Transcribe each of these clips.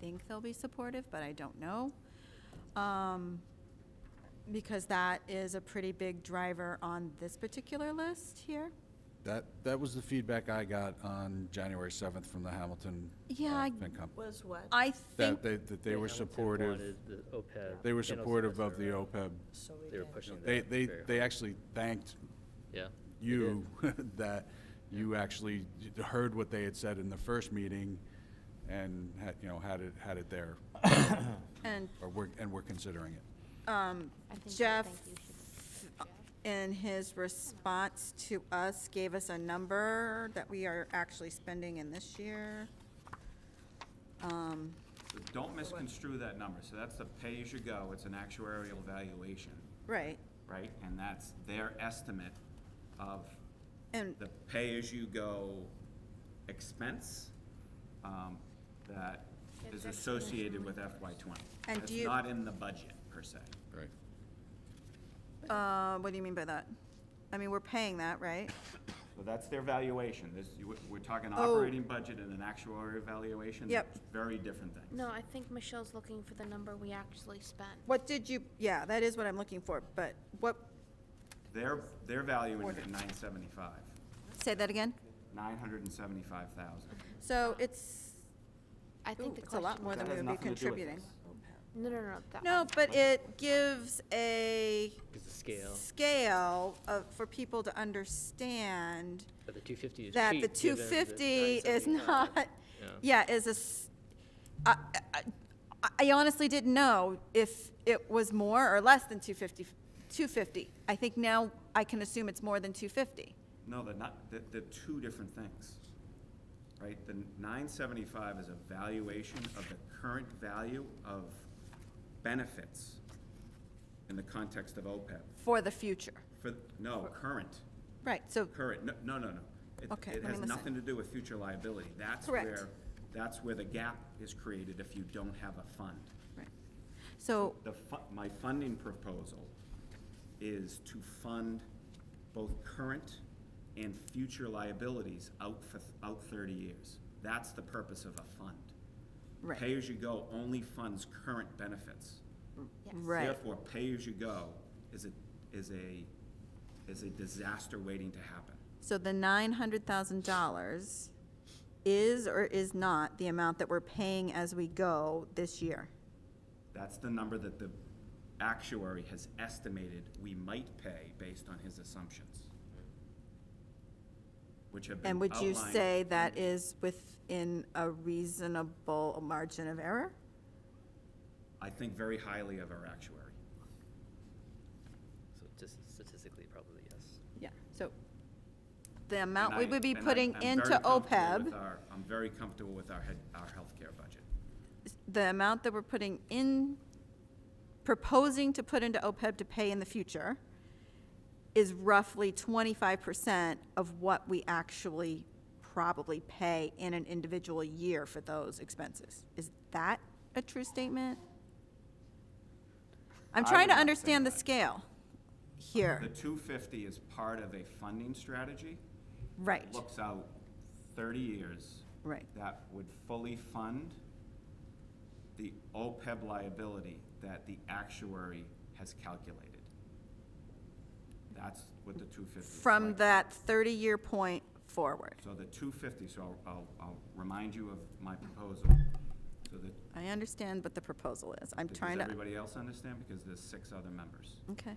think they'll be supportive, but I don't know. Um, Because that is a pretty big driver on this particular list here. That, that was the feedback I got on January 7th from the Hamilton uh, Yeah, I- FinCom. Was what? I That think, they, that they were Hamilton supportive, wanted the OPEB. they were and also supportive of the Western Railroad. OPEB. So we They were did. pushing that. They, they, very they hard. actually thanked Yeah. they you did. that you actually heard what they had said in the first meeting and had, you know, had it, had it there, and or we're, and we're considering it. um, I think- I Jeff, think you should- in his response to us, gave us a number that we are actually spending in this year. Um, So Don't misconstrue that number, so that's the pay-as-you-go, it's an actuarial valuation, Right, right? And that's their estimate of and, the pay-as-you-go expense um, that is associated with FY twenty. And It's do you- not in the budget, per se. Right. uh, what do you mean by that? I mean, we're paying that, right? So that's their valuation, this, you- we're talking Oh. operating budget and an actuarial valuation. Yep. They're Very different things. No, I think Michelle's looking for the number we actually spent. What did you, yeah, that is what I'm looking for, but what, They're, they're valuing it at nine seventy-five, say that again? nine hundred and seventy-five thousand. So it's, I think ooh, the it's a lot question, more than we would be contributing. Oh, no, no, no, that No, one. but it gives a Because the scale, scale of, for people to understand but the two fifty is cheap. that the two given that fifty is 975. not, Yeah. yeah, is a s I I I I honestly didn't know if it was more or less than 250. 250. I think now I can assume it's more than two fifty. No, they're not, they're, they're two different things, right? The nine seventy-five is a valuation of the current value of benefits in the context of OPEB. for the future. For, no, current, Right, so, current, no, no, no, no. It- Okay, let It me has listen. nothing to do with future liability. That's Correct. where, that's where the gap is created if you don't have a fund. right. so, The fu- my funding proposal is to fund both current and future liabilities out for, out thirty years. That's the purpose of a fund. right, Pay-as-you-go only funds current benefits. right, Therefore, pay-as-you-go is a, is a, is a disaster waiting to happen. so the nine hundred thousand dollars is or is not the amount that we're paying as we go this year? That's the number that the actuary has estimated we might pay based on his assumptions. Which have been And would you outlined say that in- is within a reasonable margin of error? I think very highly of our actuary. So just statistically, probably yes. Yeah, so the And amount we I- would be and I- putting I'm very into E comfortable with OPEB, our- I'm very comfortable with our, head- our healthcare budget. the amount that we're putting in, proposing to put into OPEB to pay in the future is roughly twenty-five percent of what we actually probably pay in an individual year for those expenses. Is that a true statement? I'm I trying would to not say understand the that. scale here. The two fifty is part of a funding strategy. Right, Looks out thirty years. right, that would fully fund the OPEB liability that the actuary has calculated. That's what the two fifty. from that thirty-year point forward. So the two fifty, so I'll, I'll, I'll remind you of my proposal, so that, I understand what the proposal is, I'm does trying to, everybody else understand? Because there's six other members. okay.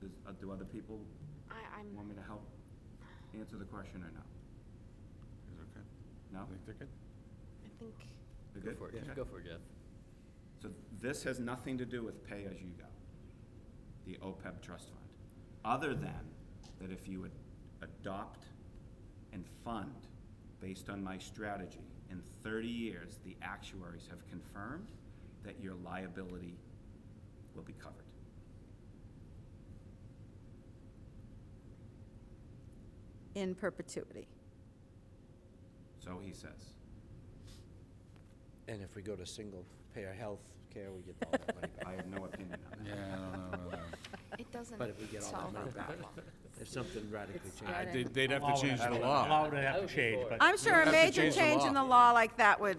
Does, uh, do other people I, I'm, want me to help answer the question or no? No? I think, They're Go good? for Okay. it, go for it, Jeff. So this has nothing to do with pay-as-you-go, the OPEB trust fund, other than that if you would adopt and fund based on my strategy, in thirty years, the actuaries have confirmed that your liability will be covered. In perpetuity. So he says. And if we go to single-payer health care, we get all that money back. I have no opinion on Yeah, that. I don't know. about that. it doesn't But if we get all that solve money the back, problem. if something radically got changes. it. They'd- They'd have to change the Law law. would have to change, but. I'm sure a have to major change the change law. in the law like that would